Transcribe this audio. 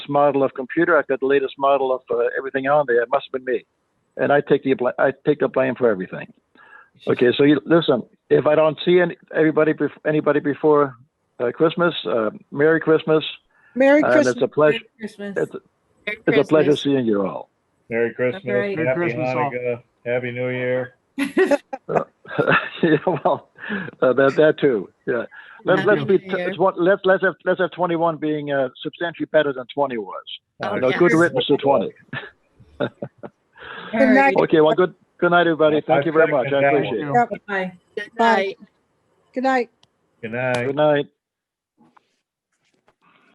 model of computer. I've got the latest model of uh, everything on there. It must have been me, and I take the bl- I take the blame for everything. Okay, so you, listen. If I don't see any, everybody bef- anybody before uh, Christmas, uh, Merry Christmas, Merry and Christmas. it's a pleasure. Christmas. It's, it's a pleasure seeing you all. Merry Christmas, right. Happy Merry Christmas, all. Hanukkah, Happy New Year. yeah, well, uh, that that too. Yeah, let's let's be Happy New Year. it's what- let's let's have let's have twenty one being uh, substantially better than twenty was. Oh, No yeah. good riddance to twenty. Good night. Okay, well, good good night, everybody. Thank you very I've got much. I that appreciate it. Bye. Bye. Good night. Good night. Good night.